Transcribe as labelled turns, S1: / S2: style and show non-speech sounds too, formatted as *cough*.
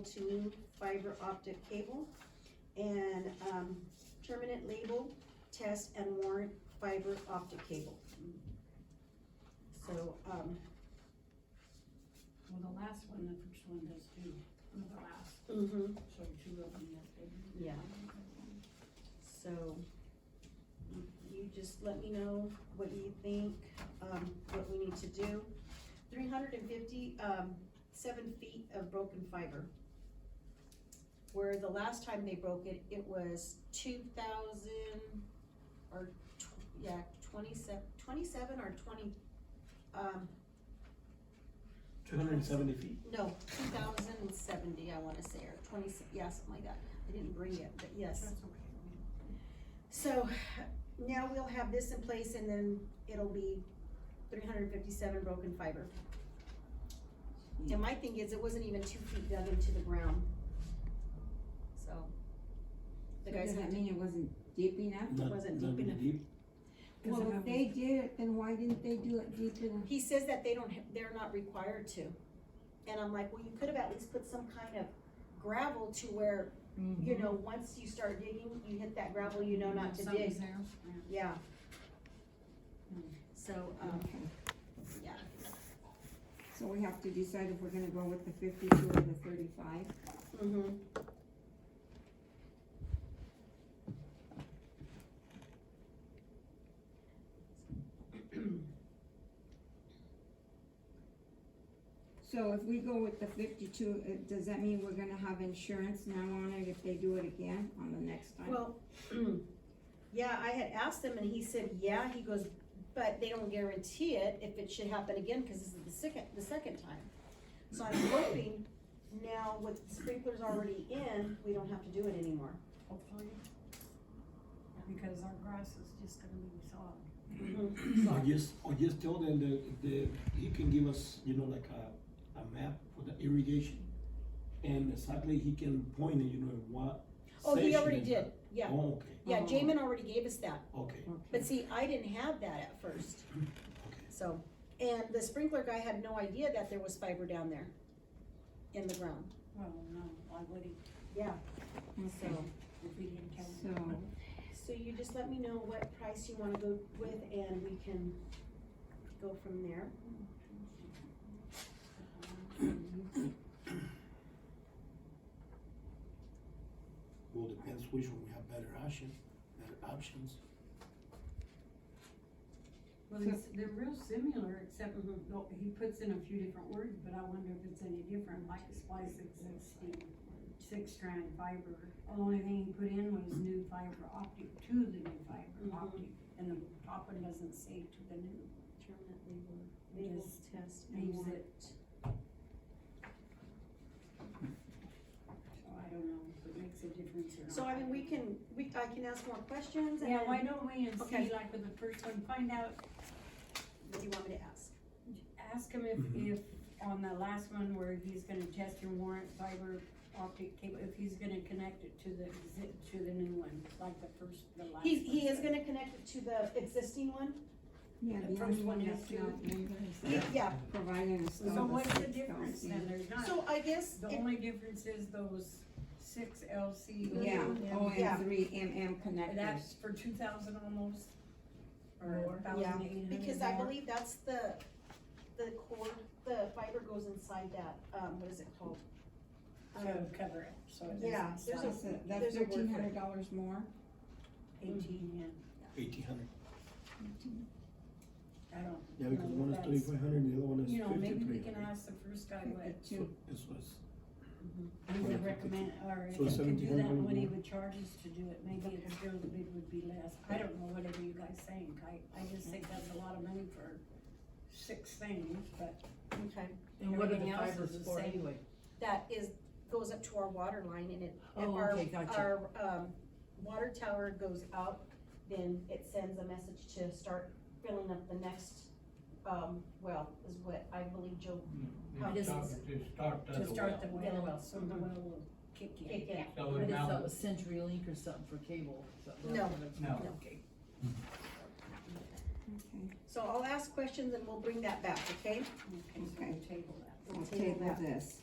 S1: to new fiber optic cable and, um, terminate label, test and warrant fiber optic cable. So, um,
S2: Well, the last one, the first one does too, one of the last,
S1: mhm,
S2: so two of them that they.
S1: yeah, so you- you just let me know what you think, um, what we need to do. Three hundred and fifty, um, seven feet of broken fiber. Where the last time they broke it, it was two thousand or tw- yeah, twenty-seven, twenty-seven or twenty, um,
S3: Two hundred and seventy feet.
S1: No, two thousand and seventy, I wanna say, or twenty, yeah, something like that, I didn't bring it, but yes.
S2: That's okay.
S1: So, now we'll have this in place and then it'll be three hundred and fifty-seven broken fiber.
S2: Hmm.
S1: And my thing is, it wasn't even two feet dug into the ground. So. The
S4: So
S1: guys
S4: does
S1: have
S4: that
S1: to,
S4: mean it wasn't deep enough?
S3: Not-
S1: wasn't
S3: not
S1: deep
S3: really
S1: enough. *clears throat*
S3: deep.
S2: Because
S4: Well,
S2: it
S4: if they did it, then why didn't they do it deep enough?
S1: he says that they don't, ha- they're not required to. And I'm like, well, you could have at least put some kind of gravel to where, you
S2: Mm-hmm.
S1: know, once you start digging, you hit that gravel, you know not to dig.
S2: Something's there.
S1: Yeah.
S2: Hmm.
S1: So, um,
S4: Okay.
S1: yeah,
S4: So we have to decide if we're gonna go with the fifty-two or the thirty-five?
S1: mm-hmm,
S4: So if we go with the fifty-two, uh, does that mean we're gonna have insurance now on it if they do it again on the next time?
S1: well, *clears throat* yeah, I had asked him and he said, yeah, he goes, but they don't guarantee it if it should happen again, cause this is the second, the second time. So I'm hoping now with sprinklers already in, we don't have to do it anymore.
S2: Hopefully. Because our grass is just gonna be soft.
S3: Or just, or just tell them that, that he can give us, you know, like a, a map for the irrigation. And exactly he can point it, you know, in what.
S1: Oh, he
S3: section
S1: already
S3: is
S1: did,
S3: that.
S1: yeah,
S3: Oh, okay,
S1: yeah, Jamin already gave us that,
S3: okay,
S1: but see, I didn't have that at first,
S3: okay.
S1: so. And the sprinkler guy had no idea that there was fiber down there in the ground,
S2: Well, no, why would he,
S1: yeah,
S4: Okay.
S1: so.
S2: if he didn't count?
S4: So,
S1: So you just let me know what price you wanna go with and we can go from there.
S3: Well, depends which one we have better option, better options.
S2: Well,
S4: So-
S2: it's- they're real similar, except
S1: Mhm.
S2: well, he puts in a few different words, but I wonder if it's any different, like splice existing six strand fiber. The only thing he put in was new fiber optic to the new
S1: Mhm.
S2: fiber optic, and the top one doesn't say to the new.
S1: Terminate label, label
S2: Just
S1: test and
S2: leaves
S1: warrant.
S2: So I don't know if it makes a difference or not.
S1: So I mean, we can, we, I can ask more questions and
S2: Yeah,
S1: then,
S2: why
S1: what
S2: don't we, and
S1: Okay.
S2: see, like with the first one, find out
S1: do you want me to ask?
S2: ask him if,
S3: Mhm.
S2: if, on the last one where he's gonna test and warrant fiber optic cable, if he's gonna connect it to the, exi- to the new one, like the first, the last.
S1: He's, he
S2: one
S1: is
S2: said.
S1: gonna connect it to the existing one?
S4: yeah,
S2: The
S4: the
S2: first
S4: only
S2: one
S4: one
S2: is
S4: that's
S2: to-
S4: not member is
S1: He- Yeah,
S4: providing us all
S2: So
S4: the
S2: what's the
S4: six
S2: difference
S4: thousand.
S2: then? There's not,
S1: so I guess,
S2: the
S1: it-
S2: only difference is those six LC.
S4: Yeah, oh,
S1: Yeah.
S4: and three MM connectors.
S2: That's for two thousand almost,
S1: More.
S2: or
S1: Yeah,
S2: thousand eight hundred.
S1: because I believe that's the, the cord, the fiber goes inside that, um, what is it called? Um,
S2: To cover it, so it
S1: Yeah,
S2: is
S1: there's a-
S4: That's,
S1: there's
S4: that's
S1: a word for it.
S4: thirteen hundred dollars more.
S2: eighteen, yeah,
S3: Eighteen hundred.
S2: I don't.
S3: Yeah, because
S2: know if
S3: one is
S2: that's-
S3: thirty-five hundred and the other one is
S2: You know, maybe we
S3: fifty-three
S2: can
S3: hundred.
S2: ask the first guy what
S4: Fifty-two.
S3: This was,
S2: He would recommend, or if
S3: So
S2: he could do that,
S3: 1700
S2: what he
S3: more?
S2: would charge us to do it, maybe it's still, the bid would be less, I don't know, whatever you guys think, I, I just think that's a lot of money for six things, but
S1: Okay,
S5: And what are the
S2: everything else
S5: fibers
S2: is the
S5: for
S2: same.
S5: anyway?
S1: that is, goes up to our water line and it, if
S5: Oh,
S1: our,
S5: okay, gotcha.
S1: our, um, water tower goes out, then it sends a message to start filling up the next, um, well, is what I believe Joe, um,
S6: Yeah,
S1: It
S6: To
S1: is-
S6: start, to start
S2: to
S6: that
S2: start the
S6: well.
S1: Yeah, the
S2: well,
S1: well. Mm-hmm.
S2: so the well will kick in.
S1: Kick in.
S6: So
S5: I
S6: it
S5: just thought it
S6: now,
S5: was CenturyLink or something for cable, something.
S1: No.
S6: No.
S5: Okay.
S4: Okay,
S1: so I'll ask questions and we'll bring that back, okay?
S2: Okay, so we'll table that.
S4: we'll table this.